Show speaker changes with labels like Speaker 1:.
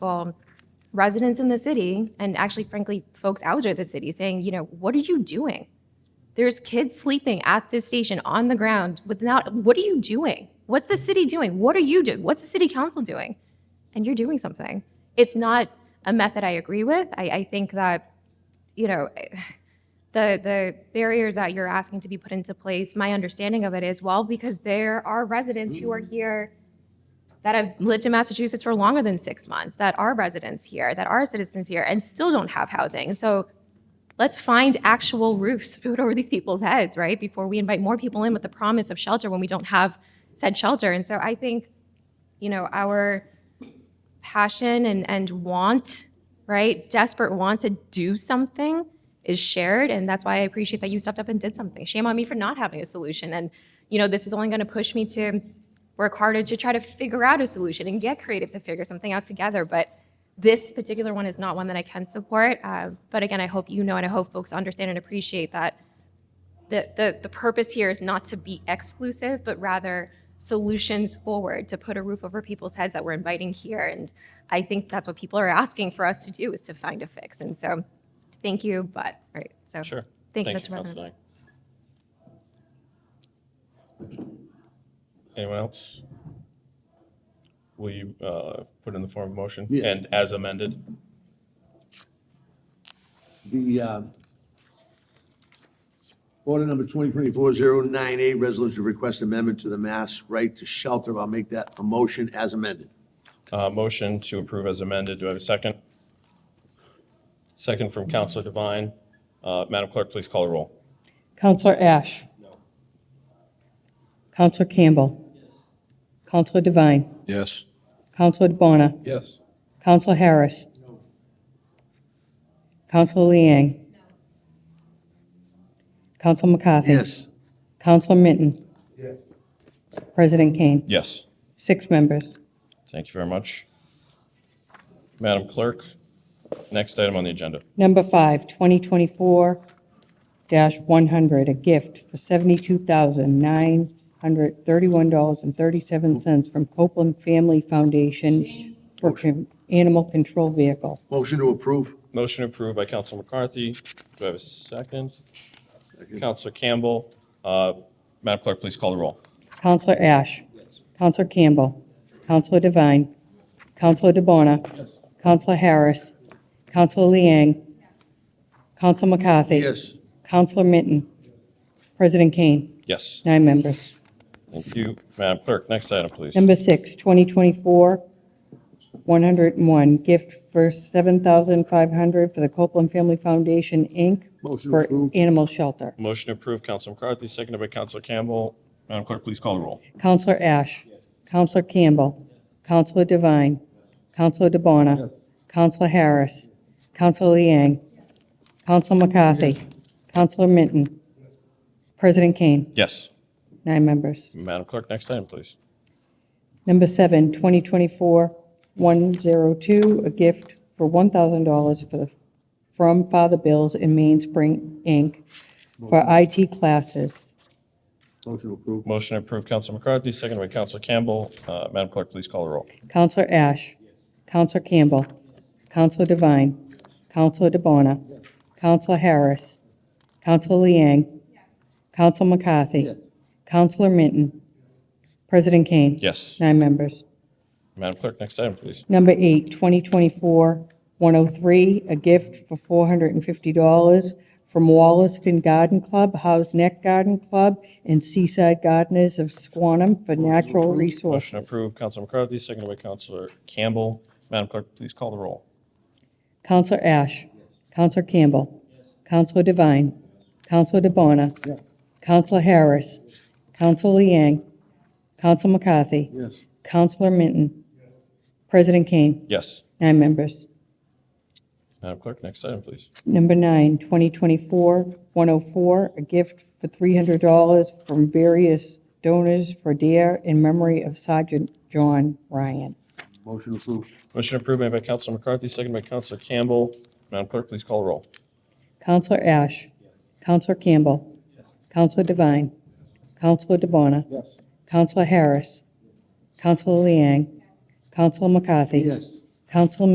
Speaker 1: well, residents in the city and actually, frankly, folks out of the city saying, you know, what are you doing? There's kids sleeping at this station on the ground without, what are you doing? What's the city doing? What are you doing? What's the city council doing? And you're doing something. It's not a method I agree with. I, I think that, you know, the, the barriers that you're asking to be put into place, my understanding of it is, well, because there are residents who are here that have lived in Massachusetts for longer than six months, that are residents here, that are citizens here, and still don't have housing. And so let's find actual roofs put over these people's heads, right? Before we invite more people in with the promise of shelter when we don't have said shelter. And so I think, you know, our passion and, and want, right, desperate want to do something is shared. And that's why I appreciate that you stepped up and did something. Shame on me for not having a solution. And, you know, this is only going to push me to work harder to try to figure out a solution and get creative to figure something out together. But this particular one is not one that I can support. Uh, but again, I hope you know and I hope folks understand and appreciate that the, the, the purpose here is not to be exclusive, but rather solutions forward to put a roof over people's heads that we're inviting here. And I think that's what people are asking for us to do is to find a fix. And so thank you, but, right, so.
Speaker 2: Sure.
Speaker 1: Thank you,
Speaker 2: Thanks,
Speaker 1: Mr. President.
Speaker 2: Councilor Lang. Anyone else? Will you uh, put in the form of motion
Speaker 3: Yeah.
Speaker 2: and as amended?
Speaker 3: The uh, order number 2024-098, resolution request amendment to the Mass Right to Shelter. I'll make that a motion as amended.
Speaker 2: Uh, Motion to approve as amended. Do I have a second? Second from Counselor Devine. Uh, Madam Clerk, please call a roll.
Speaker 4: Counselor Ash? No. Counselor Campbell? Counselor Devine?
Speaker 5: Yes.
Speaker 4: Counselor DeBona?
Speaker 5: Yes.
Speaker 4: Counselor Harris? No. Counselor Liang? No. Counselor McCarthy?
Speaker 3: Yes.
Speaker 4: Counselor Minton? Yes. President Kane?
Speaker 2: Yes.
Speaker 4: Six members.
Speaker 2: Thank you very much. Madam Clerk, next item on the agenda.
Speaker 4: Number five, 2024-100, a gift for $72,931.37 from Copeland Family Foundation for con- animal control vehicle.
Speaker 3: Motion to approve.
Speaker 2: Motion approved by Counsel McCarthy. Do I have a second? Counselor Campbell. Uh, Madam Clerk, please call the roll.
Speaker 4: Counselor Ash. Counselor Campbell. Counselor Devine. Counselor DeBona. Counselor Harris. Counselor Liang. Counselor McCarthy.
Speaker 3: Yes.
Speaker 4: Counselor Minton. President Kane.
Speaker 2: Yes,
Speaker 4: Nine members.
Speaker 2: thank you. Madam Clerk, next item, please.
Speaker 4: Number six, 2024-101, gift for $7,500 for the Copeland Family Foundation, Inc.
Speaker 3: Motion
Speaker 4: for
Speaker 3: approved.
Speaker 4: animal shelter.
Speaker 2: Motion approved, Counsel McCarthy, seconded by Counsel Campbell. Madam Clerk, please call the roll.
Speaker 4: Counselor Ash. Counselor Campbell. Counselor Devine. Counselor DeBona. Counselor Harris. Counselor Liang. Counselor McCarthy. Counselor Minton. President Kane.
Speaker 2: Yes.
Speaker 4: Nine members.
Speaker 2: Madam Clerk, next item, please.
Speaker 4: Number seven, 2024-102, a gift for $1,000 for the, from Father Bills in Mainspring, Inc., for IT classes.
Speaker 3: Motion approved.
Speaker 2: Motion approved, Counsel McCarthy, seconded by Counsel Campbell. Uh, Madam Clerk, please call the roll.
Speaker 4: Counselor Ash. Counselor Campbell. Counselor Devine. Counselor DeBona. Counselor Harris. Counselor Liang. Counselor McCarthy. Counselor Minton. President Kane.
Speaker 2: Yes.
Speaker 4: Nine members.
Speaker 2: Madam Clerk, next item, please.
Speaker 4: Number eight, 2024-103, a gift for $450 from Wallaston Garden Club, House Neck Garden Club, and Seaside Gardeners of Squanum for natural
Speaker 2: Motion
Speaker 4: resources.
Speaker 2: approved, Counsel McCarthy, seconded by Counsel Campbell. Madam Clerk, please call the roll.
Speaker 4: Counselor Ash. Counselor Campbell. Counselor Devine. Counselor DeBona. Counselor Harris. Counselor Liang. Counselor McCarthy.
Speaker 3: Yes.
Speaker 4: Counselor Minton. President Kane.
Speaker 2: Yes.
Speaker 4: Nine members.
Speaker 2: Madam Clerk, next item, please.
Speaker 4: Number nine, 2024-104, a gift for $300 from various donors for dear in memory of Sergeant John Ryan.
Speaker 3: Motion approved.
Speaker 2: Motion approved made by Counsel McCarthy, seconded by Counsel Campbell. Madam Clerk, please call the roll.
Speaker 4: Counselor Ash. Counselor Campbell. Counselor Devine. Counselor DeBona.
Speaker 3: Yes.
Speaker 4: Counselor Harris. Counselor Liang. Counselor McCarthy.
Speaker 3: Yes.
Speaker 4: Counselor